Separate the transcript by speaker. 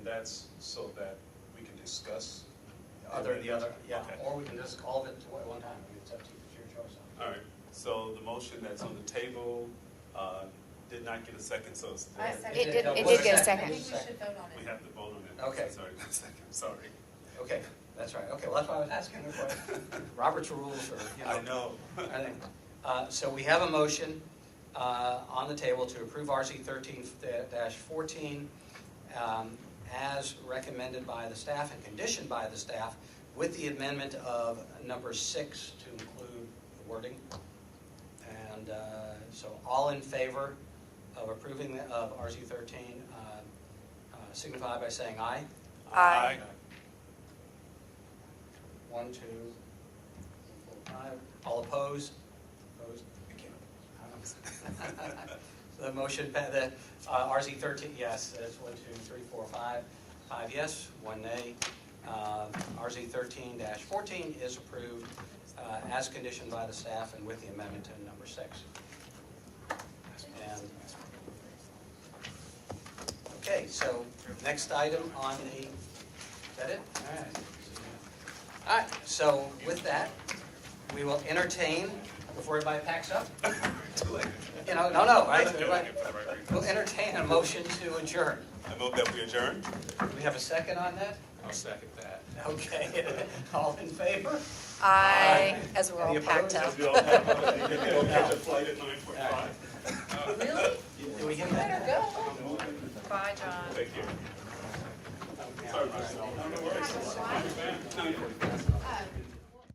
Speaker 1: that's so that we can discuss?
Speaker 2: Other, the other, yeah,
Speaker 1: Okay.
Speaker 2: or we can just all of it at one time, it's up to you, it's your choice.
Speaker 1: All right, so the motion that's on the table uh, did not get a second, so it's.
Speaker 3: I
Speaker 2: It
Speaker 3: second.
Speaker 2: did- it did get a second.
Speaker 3: I think we should vote on
Speaker 1: We
Speaker 3: it.
Speaker 1: have to vote on it.
Speaker 2: Okay.
Speaker 1: Sorry, one second, sorry.
Speaker 2: Okay, that's right, okay, well, that's why I was asking the question. Robert's rules are, you know.
Speaker 1: I know.
Speaker 2: I think. Uh, So we have a motion uh, on the table to approve RC 13-14 um, as recommended by the staff and conditioned by the staff with the amendment of number six to include the wording. And uh, so all in favor of approving the- of RC 13 uh, uh, signify by saying aye.
Speaker 4: Aye.
Speaker 2: One, two, four, five. All opposed? Opposed? So the motion, pa- the uh, RZ 13, yes, that's one, two, three, four, five. Five yes, one nay. Uh, RZ 13-14 is approved uh, as conditioned by the staff and with the amendment to number six. And- Okay, so next item on the, is that it? All right. All right, so with that, we will entertain, before everybody packs up,
Speaker 1: Too late.
Speaker 2: you know, no, no, right?
Speaker 1: Let's do it.
Speaker 2: Everybody- We'll entertain a motion to adjourn.
Speaker 1: I move that we adjourn.
Speaker 2: Do we have a second on that?
Speaker 1: I'll second that.
Speaker 2: Okay, all in favor?
Speaker 4: I, as we're all packed up.
Speaker 1: We'll catch a flight at nine forty-five.
Speaker 3: Really?
Speaker 2: Do we get
Speaker 3: You better
Speaker 2: that?
Speaker 3: go. Bye, John.
Speaker 1: Thank you. Sorry, Bruce. No worries. Nine forty-five.